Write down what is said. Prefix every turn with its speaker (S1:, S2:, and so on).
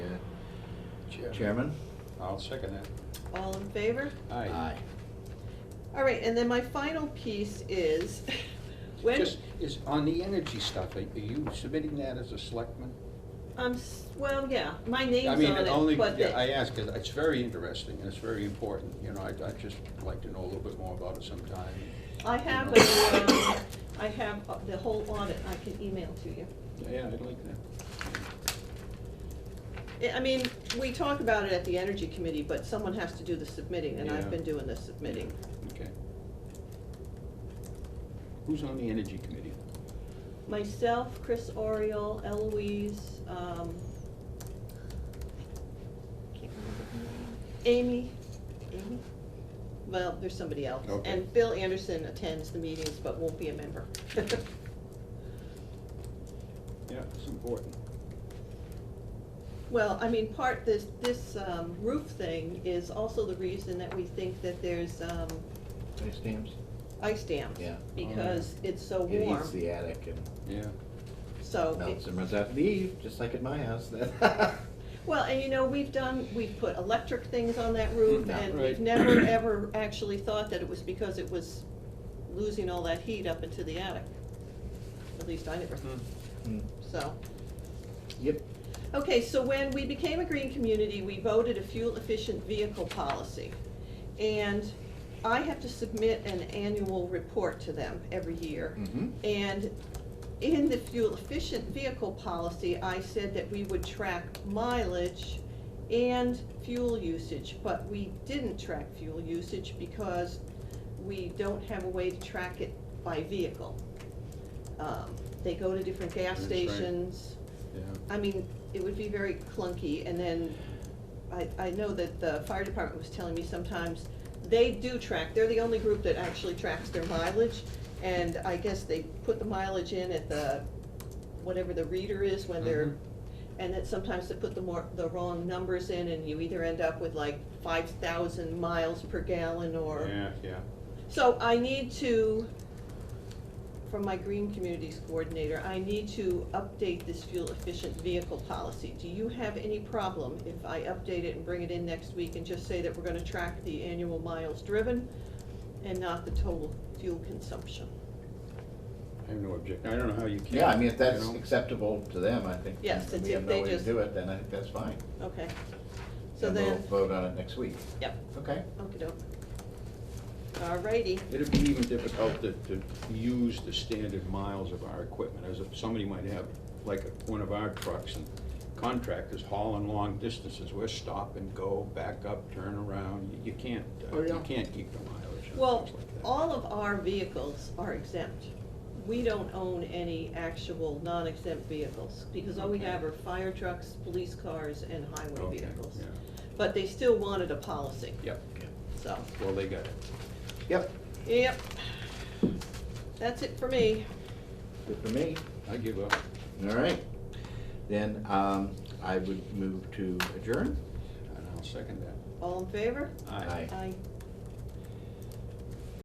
S1: Chair.
S2: Chairman?
S3: I'll second that.
S4: All in favor?
S3: Aye.
S4: All right, and then my final piece is, when,
S3: Just, is, on the energy stuff, are are you submitting that as a selectman?
S4: um, well, yeah, my name's
S3: I
S4: on
S3: mean, only,
S4: it, but
S3: yeah, I
S4: the-
S3: ask, 'cause it's very interesting, and it's very important, you know, I'd, I'd just like to know a little bit more about it sometime.
S4: I have, a, um, I have uh, the whole audit, I can email to you.
S3: Yeah, I'd like that.
S4: I- I mean, we talk about it at the energy committee, but someone has to do the submitting, and
S3: Yeah.
S4: I've been doing the submitting.
S3: Okay. Who's on the energy committee?
S4: Myself, Chris Oriole, Eloise, um, can't remember her name. Amy, Amy? Well, there's somebody else.
S3: Okay.
S4: And Bill Anderson attends the meetings but won't be a member.
S3: Yeah, it's important.
S4: Well, I mean, part, this, this um, roof thing is also the reason that we think that there's, um,
S2: Any stamps?
S4: ice dams.
S2: Yeah.
S4: Because it's so
S2: It
S4: warm,
S2: eats the attic and
S3: Yeah.
S4: so. it-
S2: melts and runs out the eve, just like at my house. Mm.
S4: Well, and you know, we've done, we've put electric things on that roof,
S2: Yeah.
S4: and
S3: Right.
S4: we've never, ever actually thought that it was because it was losing all that heat up into the attic. At least I never,
S2: Mm.
S4: so.
S2: Yep.
S4: Okay, so when we became a green community, we voted a fuel-efficient vehicle policy. And I have to submit an annual report to them every year.
S2: Mhm.
S4: And in the fuel-efficient vehicle policy, I said that we would track mileage and fuel usage, but we didn't track fuel usage because we don't have a way to track it by vehicle. Um, They go to different
S3: That's
S4: gas
S3: right.
S4: stations.
S3: Yeah.
S4: I mean, it would be very clunky, and then I, I know that the fire department was telling me sometimes, they do track, they're the only group that actually tracks their mileage, and I guess they put the mileage in at the, whatever the reader is when they're,
S3: Mhm.
S4: and that sometimes they put the more, the wrong numbers in, and you either end up with like five thousand miles per gallon, or.
S3: Yeah, yeah.
S4: So I need to, from my green communities coordinator, I need to update this fuel efficient vehicle policy. Do you have any problem if I update it and bring it in next week and just say that we're gonna track the annual miles driven and not the total fuel consumption?
S3: I have no objection, I don't know how you can.
S2: Yeah, I mean, if that's
S3: you know?
S2: acceptable to them, I think.
S4: Yes,
S2: if
S4: it's
S2: We have
S4: if
S2: no
S4: they
S2: way to
S4: just-
S2: do it, then I think that's fine.
S4: Okay. So
S2: And we'll
S4: then,
S2: vote on it next week.
S4: yep,
S2: Okay.
S4: okey-doke. Alrighty,
S3: It'd be even difficult to, to use the standard miles of our equipment, as if somebody might have, like, one of our trucks and contractors hauling long distances, we're stop and go, back up, turn around, you can't, uh,
S2: Oh, yeah.
S3: you can't keep the mileage on
S4: well,
S3: things like that.
S4: all of our vehicles are exempt. We don't own any actual non-exempt vehicles, because all we
S3: Okay.
S4: have are fire trucks, police cars, and highway
S3: Okay,
S4: vehicles.
S3: yeah.
S4: But they still wanted a policy,
S3: Yep,
S4: so,
S3: well, they got it.
S2: Yep,
S4: yep. That's it for me.
S2: good for me.
S3: I give up.
S2: All right. Then um, I would move to adjourn.
S3: And I'll second that.
S4: All in favor?
S2: Aye.
S4: Aye.